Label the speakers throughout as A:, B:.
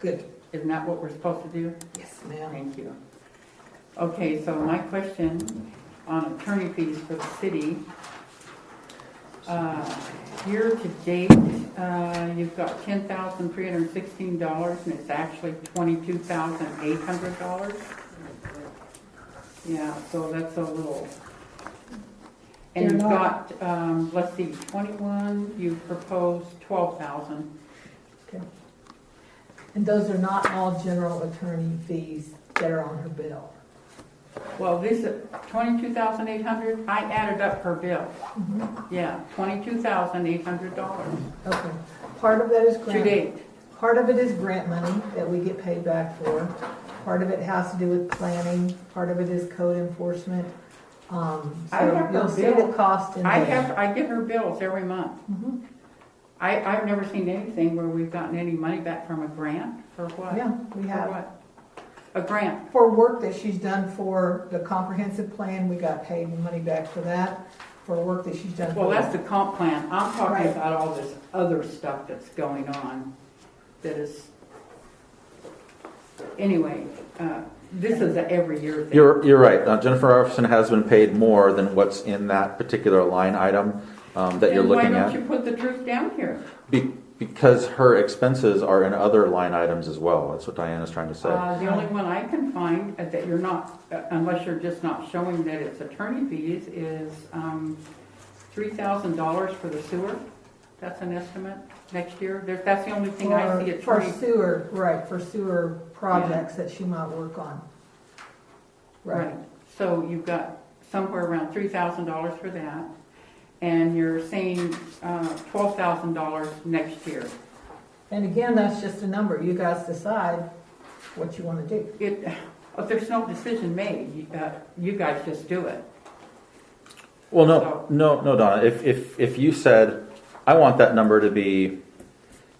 A: Good.
B: Isn't that what we're supposed to do?
A: Yes, ma'am.
B: Thank you. Okay, so my question on attorney fees for the city. Uh, Year to date, uh, you've got ten thousand three hundred and sixteen dollars and it's actually twenty-two thousand eight hundred dollars. Yeah, so that's a little. And
A: They're
B: you've
A: not-
B: got, um, let's see, twenty-one, you proposed twelve thousand.
A: And those are not all general attorney fees that are on her bill.
B: Well, this, twenty-two thousand eight hundred, I added up her bill.
A: Mm-hmm.
B: Yeah, twenty-two thousand eight hundred dollars
A: Okay, part of that is
B: to
A: grant.
B: date.
A: Part of it is grant money that we get paid back for. Part of it has to do with planning, part of it is code enforcement. Um,
B: I
A: so
B: have
A: you'll
B: her
A: see the
B: bill.
A: cost in
B: I
A: there.
B: have, I get her bills every month.
A: Mhm.
B: I, I've never seen anything where we've gotten any money back from a grant or what?
A: Yeah, we
B: For
A: have.
B: what? A grant,
A: For work that she's done for the comprehensive plan, we got paid money back for that. For work that she's done. for-
B: well, that's the comp plan, I'm talking
A: Right.
B: about all this other stuff that's going on, that is. Anyway, uh, this is a every year thing.
C: You're, you're right. Uh, Jennifer Arfson has been paid more than what's in that particular line item um, that you're
B: Then
C: looking
B: Why
C: at.
B: don't you put the truth down here?
C: Be- Because her expenses are in other line items as well. That's what Diana's trying to say.
B: Uh, The only one I can find uh, that you're not, uh, unless you're just not showing that it's attorney fees, is um, $3,000 for the sewer. That's an estimate next year. There- That's the only thing I see
A: For for
B: attorney.
A: sewer, right, for sewer projects that she might work on. Right,
B: Right. So you've got somewhere around $3,000 for that. And you're saying uh, $12,000 next year.
A: and again, that's just a number, you guys decide what you wanna do.
B: It, uh, there's no decision made. You uh, you guys just do it.
C: Well, no, no, no, Donna. If, if, if you said, I want that number to be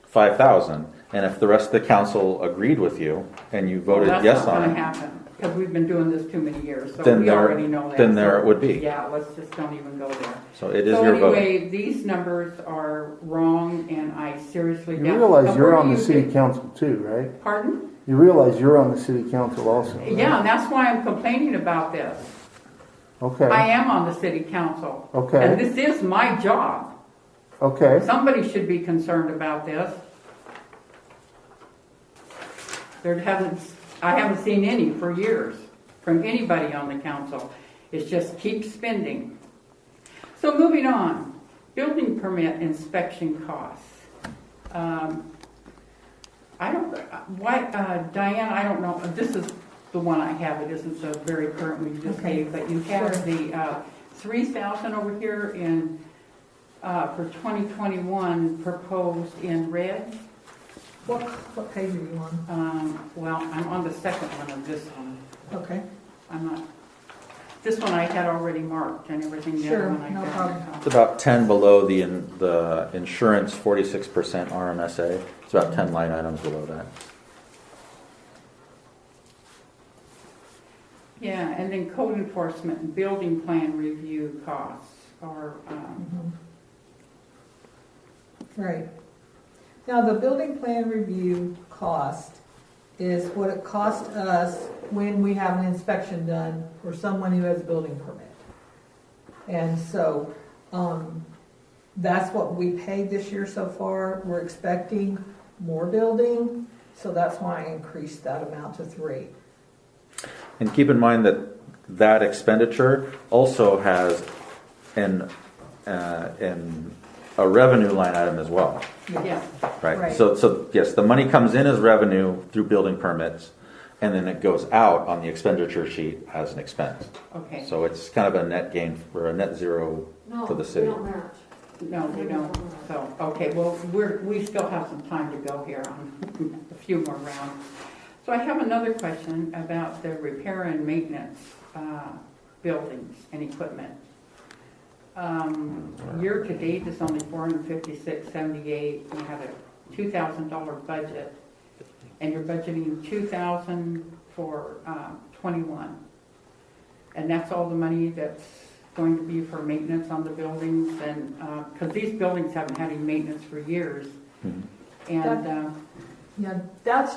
C: 5,000, and if the rest of the council agreed with you and you voted
B: Well,
C: yes
B: That's not
C: on
B: gonna
C: it,
B: happen, because we've been doing this too many years, so
C: Then
B: we
C: there-
B: already know that.
C: then there
B: so-
C: it would be.
B: Yeah, let's just don't even go there.
C: so it is your
B: So
C: vote.
B: anyway, these numbers are wrong, and I seriously
D: You
B: doubt.
D: realize
B: Now,
D: you're
B: where
D: on
B: do
D: the
B: you
D: city
B: get-
D: council too, right?
B: Pardon?
D: You realize you're on the city council also, right?
B: Yeah, and that's why I'm complaining about this. I
D: Okay,
B: am on the city council.
D: Okay.
B: And this is my job.
D: okay.
B: Somebody should be concerned about this. There hasn't, I haven't seen any for years from anybody on the council. It's just keep spending. So moving on, building permit inspection costs. Um, I don't, why, uh, Diane, I don't know, this is the one I have, it isn't so very current, we just
A: Okay.
B: gave, but you have the uh, 3,000 over here in, uh, for 2021 proposed in red.
A: What, what page are you on?
B: Um, Well, I'm on the second one of this one.
A: Okay,
B: I'm not, this one I had already marked and everything, the
A: Sure,
B: other one I
A: no
B: found.
A: problem.
C: It's about 10 below the, in- the insurance 46% RMSA. It's about 10 line items below that.
B: Yeah, and then code enforcement and building plan review costs are, um,
A: Mm-hmm. right. Now, the building plan review cost is what it costs us when we have an inspection done for someone who has a building permit. And so, um, that's what we paid this year so far. We're expecting more building, so that's why I increased that amount to three.
C: And keep in mind that that expenditure also has an, uh, an, a revenue line item as well,
B: yeah.
C: right?
A: Right.
C: So, so yes, the money comes in as revenue through building permits, and then it goes out on the expenditure sheet as an expense.
B: Okay,
C: So it's kind of a net gain or a net zero
E: No,
C: for the
E: we
C: city.
E: don't match.
B: no, we don't, so, okay, well, we're, we still have some time to go here on a few more rounds. So I have another question about the repair and maintenance, uh, buildings and equipment. Um, year to date is only four hundred fifty-six seventy-eight, you have a two thousand dollar budget, and you're budgeting two thousand for, um, twenty-one. And that's all the money that's going to be for maintenance on the buildings and, uh 'cause cause these buildings haven't had any maintenance for years.
C: Mhm.
B: And, uh,
A: Yeah, that's